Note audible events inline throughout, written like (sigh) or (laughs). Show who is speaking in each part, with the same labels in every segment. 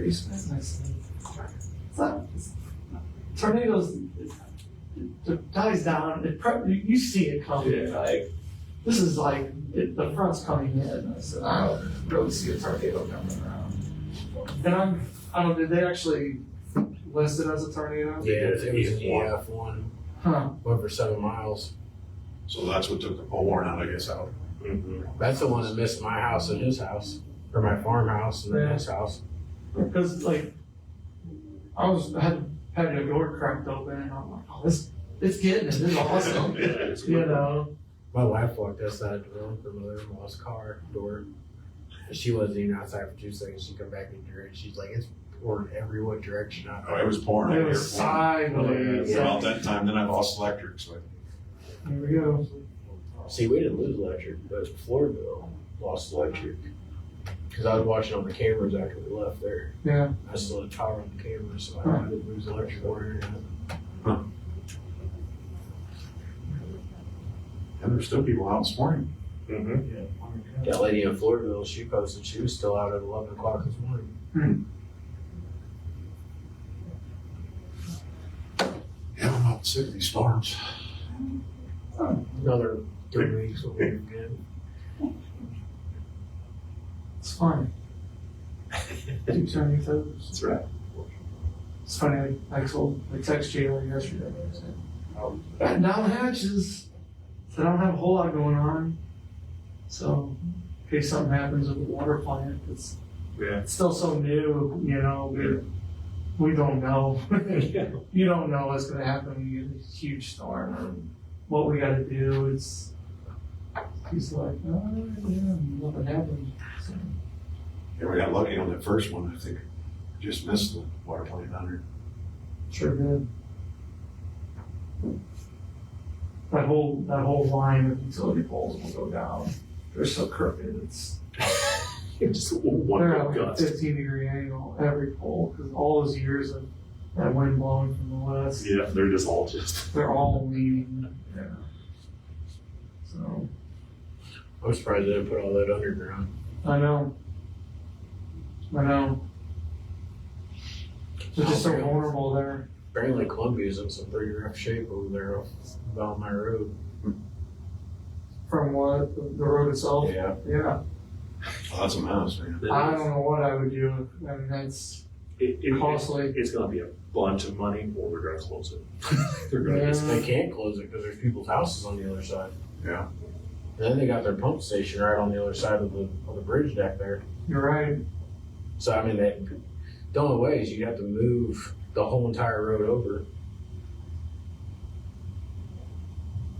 Speaker 1: That's nice. It's not, it's, tornadoes, it, it dies down, it, pre- you, you see it coming,
Speaker 2: Yeah.
Speaker 1: like, this is like, it, the front's coming in, uh, I said, I don't really see a tornado coming around. And I'm, I don't, did they actually list it as a tornado?
Speaker 3: Yeah, it was an
Speaker 2: Yeah.
Speaker 3: EF one,
Speaker 1: Huh,
Speaker 3: went for seven miles.
Speaker 2: So that's what took the pole barn out, I guess, out.
Speaker 3: That's the one that missed my house and his house, or my farmhouse and then his house.
Speaker 1: cause like, I was, I had, had a door cracked open, and I'm like, oh, this, it's getting it, this is awesome, (laughs) you know?
Speaker 3: My wife walked outside the room for mother-in-law's car door. She wasn't even outside for two seconds. She come back in here and she's like, it's pouring every what direction out
Speaker 2: (laughs) Oh, it was pouring.
Speaker 1: It
Speaker 2: out
Speaker 1: was
Speaker 2: here, pouring.
Speaker 1: sideways.
Speaker 2: About that time, then I lost electric, so
Speaker 1: There we go.
Speaker 3: See, we didn't lose electric, but Floridville lost electric. Cause I was watching on the cameras after we left there.
Speaker 1: Yeah.
Speaker 3: I still had power on the cameras, so I didn't lose electric or internet.
Speaker 2: and there's still people out this morning.
Speaker 4: Mm-hmm.
Speaker 3: That lady in Floridville, she posted she was still out at eleven o'clock this morning.
Speaker 2: Yeah, I'm out sick of these storms.
Speaker 3: Another three weeks will be
Speaker 4: (laughs)
Speaker 3: good.
Speaker 1: It's
Speaker 2: (laughs)
Speaker 1: fine. Keep turning your toes.
Speaker 2: That's right.
Speaker 1: It's funny, I, I told, I texted Jalen yesterday. I said, Batten down the hatches. I don't have a whole lot going on. So in case something happens with the water plant, it's,
Speaker 4: Yeah.
Speaker 1: it's still so new, you know, we, we don't know. (laughs) you don't know what's gonna happen when you get a huge storm or what we gotta do. It's, he's like, oh, yeah, nothing happened. So,
Speaker 2: Yeah, we got lucky on that first one, I think. Just missed the water plant under.
Speaker 1: Sure did. That whole, that whole line of utility poles will go down. They're so crooked, it's,
Speaker 4: Just one
Speaker 1: they're at like
Speaker 4: big
Speaker 1: a
Speaker 4: gust.
Speaker 1: fifteen degree angle, every pole, because all those years of that wind blowing from the west,
Speaker 4: Yeah, they're just all just.
Speaker 1: they're all leaning. Yeah. So,
Speaker 3: I'm surprised they didn't put all that underground.
Speaker 1: I know. I know. They're just so vulnerable there.
Speaker 3: Apparently Columbia's in some pretty rough shape over there off Valmy Road.
Speaker 1: From what, the the road itself?
Speaker 3: Yeah.
Speaker 1: Yeah.
Speaker 2: Lots of miles, man.
Speaker 1: I don't know what I would do. I mean, that's
Speaker 4: It, it, it's,
Speaker 1: costly.
Speaker 4: it's going to be a bunch of money, or we're going to close it. they're going to
Speaker 1: Yeah.
Speaker 4: just.
Speaker 3: They can't close it because there's people's houses on the other side.
Speaker 2: Yeah.
Speaker 3: And then they got their pump station right on the other side of the, of the bridge deck there.
Speaker 1: You're right.
Speaker 3: So I mean, that the only way is you have to move the whole entire road over.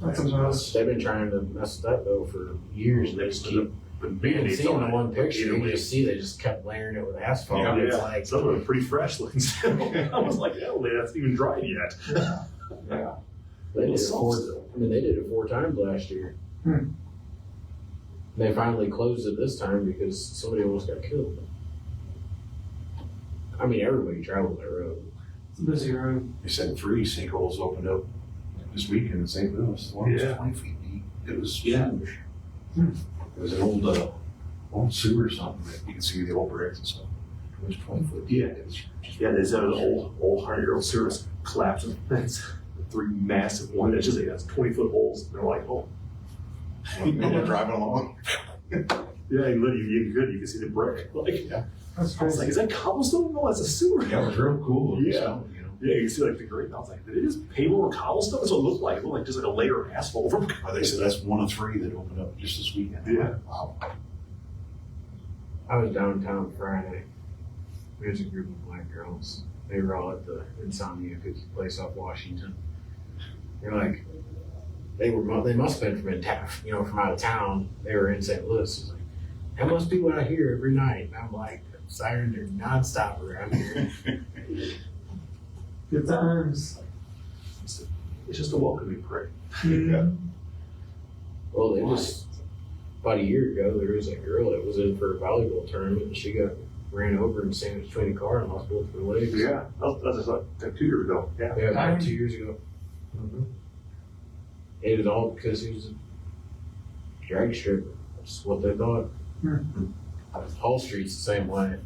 Speaker 1: That's a mess.
Speaker 3: They've been trying to mess with that though for years. They just keep.
Speaker 4: Been
Speaker 3: You can see in the one picture,
Speaker 4: Either
Speaker 3: you
Speaker 4: way.
Speaker 3: just see they just kept layering it with asphalt.
Speaker 2: Yeah.
Speaker 3: It's
Speaker 4: Yeah.
Speaker 3: like,
Speaker 4: Some of them are pretty fresh looking still. (laughs) I was like, hell, yeah, that's even dried yet.
Speaker 1: Yeah.
Speaker 3: they did it four,
Speaker 4: Still.
Speaker 3: I mean, they did it four times last year.
Speaker 1: Hmm.
Speaker 3: They finally closed it this time because somebody almost got killed. I mean, everybody traveled that road.
Speaker 1: It's a busy road.
Speaker 2: They said three sinkholes opened up this weekend in St. Louis. The One was
Speaker 4: Yeah.
Speaker 2: twenty feet deep. It was
Speaker 4: Yeah.
Speaker 2: huge.
Speaker 1: Hmm.
Speaker 2: It was an old, uh, old sewer or something that you can see the old bricks and stuff. It was twenty foot deep.
Speaker 4: Yeah.
Speaker 2: It was
Speaker 4: Yeah, they said an old, old hundred year old service collapsed and that's three massive one inches. It has 20 foot holes. And they're like, oh,
Speaker 2: (laughs) People driving along.
Speaker 4: yeah, you literally, you could, you could see the brick. Like,
Speaker 1: That's
Speaker 4: I was like,
Speaker 1: crazy.
Speaker 4: is that cobblestone? No, that's a sewer.
Speaker 2: Yeah, it was real cool. It was
Speaker 4: Yeah.
Speaker 2: something, You know,
Speaker 4: Yeah, you can see like the grate. And I was like, did it just pave over cobblestone? That's what it looked like. It looked like just like a layer of asphalt (laughs) over.
Speaker 2: Oh, they said that's one of three that opened up just this weekend.
Speaker 4: Yeah.
Speaker 2: Wow.
Speaker 3: I was downtown Friday. There's a group of black girls. They were all at the Insomnia Cookie Place off Washington. They're like, they were mu- they must have been from in town, you know, from out of town. They were in St. Louis. It's like, that must be what I hear every night. And I'm like, sirens are nonstop around here.
Speaker 1: Good times.
Speaker 4: It's just a welcoming brick.
Speaker 2: Yeah.
Speaker 3: well, they just about a year ago there was a girl that was in for a volleyball tournament and she got ran over and sandwiched between a car and lost both of her legs.
Speaker 4: Yeah, that was, that was just like like two years ago. Yeah.
Speaker 3: Yeah, about two years ago.
Speaker 4: Mhm.
Speaker 3: It was all because he was a drag stripper. That's what they thought.
Speaker 1: Hmm.
Speaker 3: Whole Street's the same way.